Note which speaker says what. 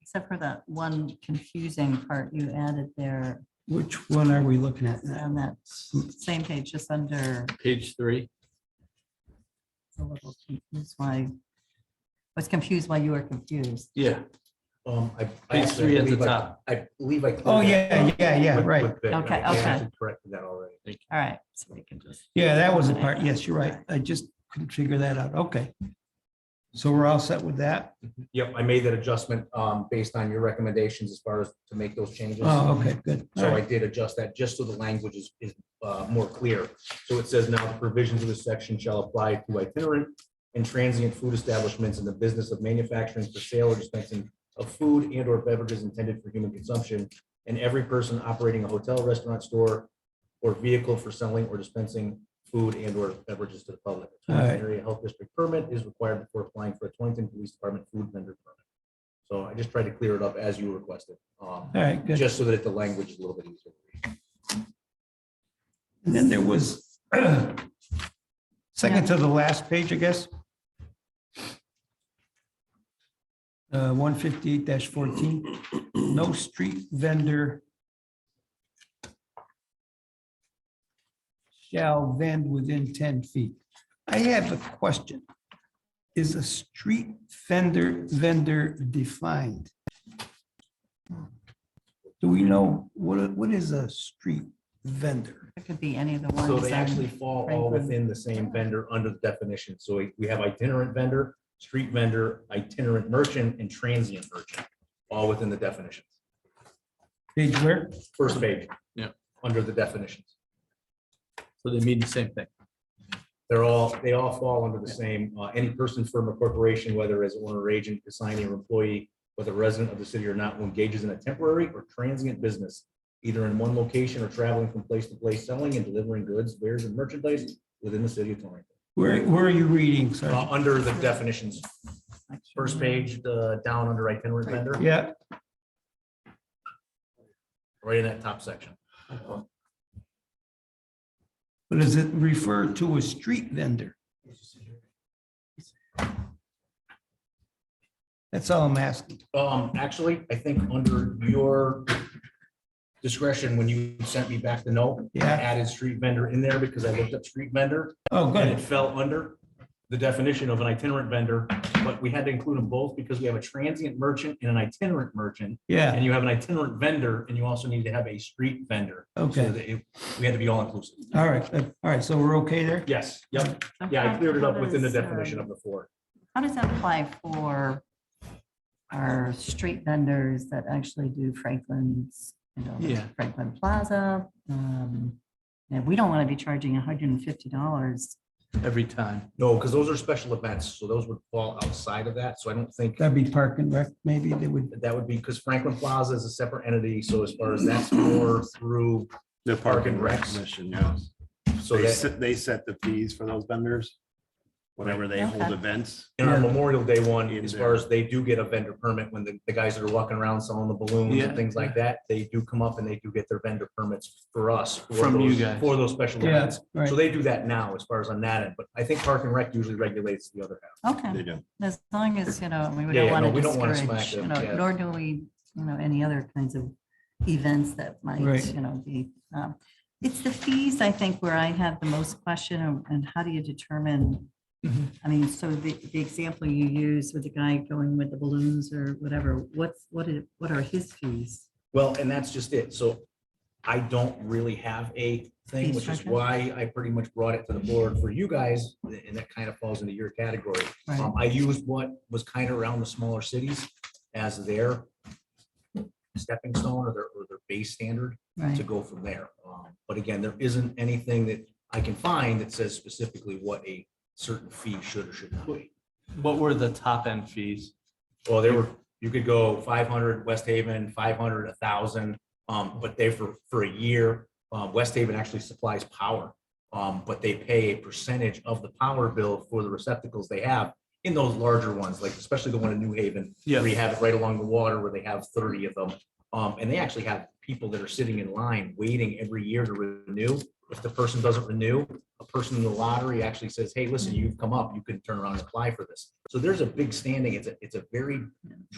Speaker 1: except for that one confusing part you added there
Speaker 2: Which one are we looking at now?
Speaker 1: on that same page, just under,
Speaker 3: Page three.
Speaker 1: a little confused why, was confused why you were confused.
Speaker 3: Yeah.
Speaker 4: Um, I. I
Speaker 3: Page
Speaker 4: actually
Speaker 3: three at the
Speaker 4: believe I-
Speaker 3: top.
Speaker 4: I believe I. cleared
Speaker 2: Oh,
Speaker 4: that
Speaker 2: yeah,
Speaker 4: up
Speaker 2: yeah, yeah,
Speaker 4: with-
Speaker 2: right.
Speaker 4: with the-
Speaker 1: Okay,
Speaker 4: I
Speaker 1: okay.
Speaker 4: actually Corrected that already.
Speaker 1: All right, so we can just,
Speaker 2: Yeah, that was a part. Yes, you're right. I just couldn't figure that out. Okay. So we're all set with that?
Speaker 4: Yep, I made that adjustment, um, based on your recommendations as far as to make those changes.
Speaker 2: Oh, okay, good. All
Speaker 4: So I
Speaker 2: right.
Speaker 4: did adjust that just so the language is, is uh, more clear. So it says now the provisions of this section shall apply to itinerant and transient food establishments in the business of manufacturing for sale or dispensing of food and or beverages intended for human consumption. And every person operating a hotel, restaurant, store, or vehicle for selling or dispensing food and or beverages to the public. A
Speaker 2: All right.
Speaker 4: Area health district permit is required before applying for a Torrington Police Department food vendor permit. So I just tried to clear it up as you requested. Um,
Speaker 2: All right, good.
Speaker 4: just so that the language is a little bit easier.
Speaker 2: And then there was second to the last page, I guess. Uh, one fifty-eight fourteen, no street vendor shall vend within ten feet. I have a question. Is a street vendor, vendor defined? Do we know what, what is a street vendor?
Speaker 1: it could be any of the ones.
Speaker 4: So they
Speaker 1: on-
Speaker 4: actually fall all
Speaker 1: Franklin.
Speaker 4: within the same vendor under the definition. So we- we have itinerant vendor, street vendor, itinerant merchant, and transient merchant, all within the definitions.
Speaker 2: Page where?
Speaker 4: First page.
Speaker 3: Yeah.
Speaker 4: Under the definitions.
Speaker 3: So they mean the same thing.
Speaker 4: They're all, they all fall under the same, uh, any person, firm, or corporation, whether as owner or agent, assignee, or employee, whether resident of the city or not, who engages in a temporary or transient business, either in one location or traveling from place to place, selling and delivering goods, wares, and merchandise within the city of Torrington.
Speaker 2: Where, where are you reading,
Speaker 4: Uh,
Speaker 2: sir?
Speaker 4: under the definitions, first page, the down under itinerant vendor,
Speaker 2: Yeah,
Speaker 4: right in that top section.
Speaker 2: but does it refer to a street vendor? That's all I'm asking.
Speaker 4: Um, actually, I think under your discretion, when you sent me back the note, I
Speaker 2: Yeah,
Speaker 4: added street vendor in there because I looked up street vendor
Speaker 2: oh,
Speaker 4: and it
Speaker 2: good.
Speaker 4: fell under the definition of an itinerant vendor, but we had to include them both because we have a transient merchant and an itinerant merchant.
Speaker 2: Yeah,
Speaker 4: And you have an itinerant vendor and you also need to have a street vendor. So
Speaker 2: okay.
Speaker 4: that it- We had to be all inclusive.
Speaker 2: All right, good. all right, so we're okay there?
Speaker 4: Yes, yep.
Speaker 1: So
Speaker 4: Yeah, I
Speaker 1: how-
Speaker 4: cleared it
Speaker 1: how
Speaker 4: up within the
Speaker 1: does, um,
Speaker 4: definition of the four.
Speaker 1: How does that apply for our street vendors that actually do Franklin's, you know,
Speaker 3: Yeah.
Speaker 1: Franklin Plaza? um, And we don't want to be charging hundred and fifty dollars.
Speaker 3: Every time.
Speaker 4: No, because those are special events, so those would fall outside of that, so I don't think
Speaker 2: That'd be parking, rec, maybe they would,
Speaker 4: that that would be, because Franklin Plaza is a separate entity, so as far as that's more through,
Speaker 5: The
Speaker 4: Park
Speaker 5: Park
Speaker 4: and
Speaker 5: and Rec
Speaker 4: Recs.
Speaker 5: Commission, yes.
Speaker 4: so
Speaker 5: They
Speaker 4: that
Speaker 5: set, they set the fees for those vendors, whenever they hold
Speaker 1: Okay.
Speaker 5: events.
Speaker 4: in our Memorial Day one,
Speaker 5: In
Speaker 4: as
Speaker 5: there.
Speaker 4: far as they do get a vendor permit, when the, the guys that are walking around selling the balloons
Speaker 3: Yeah,
Speaker 4: and things like that, they do come up and they do get their vendor permits for us. for
Speaker 3: From you
Speaker 4: those-
Speaker 3: guys.
Speaker 4: For those special
Speaker 2: yeah,
Speaker 4: events.
Speaker 2: right.
Speaker 4: So they do that now, as far as on that end, but I think Park and Rec usually regulates the other half.
Speaker 1: Okay,
Speaker 5: They do.
Speaker 1: as long as, you know, we
Speaker 4: Yeah,
Speaker 1: don't
Speaker 4: yeah, no,
Speaker 1: want
Speaker 4: we
Speaker 1: to
Speaker 4: don't wanna
Speaker 1: discourage,
Speaker 4: smack
Speaker 1: you
Speaker 4: them,
Speaker 1: know,
Speaker 4: yeah.
Speaker 1: nor do we, you know, any other kinds of events that might,
Speaker 2: Right.
Speaker 1: you know, be. um, It's the fees, I think, where I have the most question and- and how do you determine?
Speaker 4: Mm-hmm.
Speaker 3: Mhm.
Speaker 1: I mean, so the, the example you use with the guy going with the balloons or whatever, what's, what is, what are his fees?
Speaker 4: Well, and that's just it. So I don't really have a
Speaker 1: Fee
Speaker 4: thing, which is
Speaker 1: structure?
Speaker 4: why I pretty much brought it to the board for you guys, and that kind of falls into your category. Um, I used what was kind of around the smaller cities as their stepping stone or their, or their base standard to
Speaker 1: Right,
Speaker 4: go from there. Um, But again, there isn't anything that I can find that says specifically what a certain fee should or should not be.
Speaker 3: What were the top end fees?
Speaker 4: Well, they were, you could go five hundred, West Haven, five hundred, a thousand, um, but they for, for a year. Uh, West Haven actually supplies power, um, but they pay a percentage of the power bill for the receptacles they have in those larger ones, like especially the one in New Haven.
Speaker 3: Yeah.
Speaker 4: Where you have it right along the water where they have thirty of them. Um, and they actually have people that are sitting in line waiting every year to renew. If the person doesn't renew, a person in the lottery actually says, hey, listen, you've come up, you can turn around and apply for this. So there's a big standing, it's a, it's a very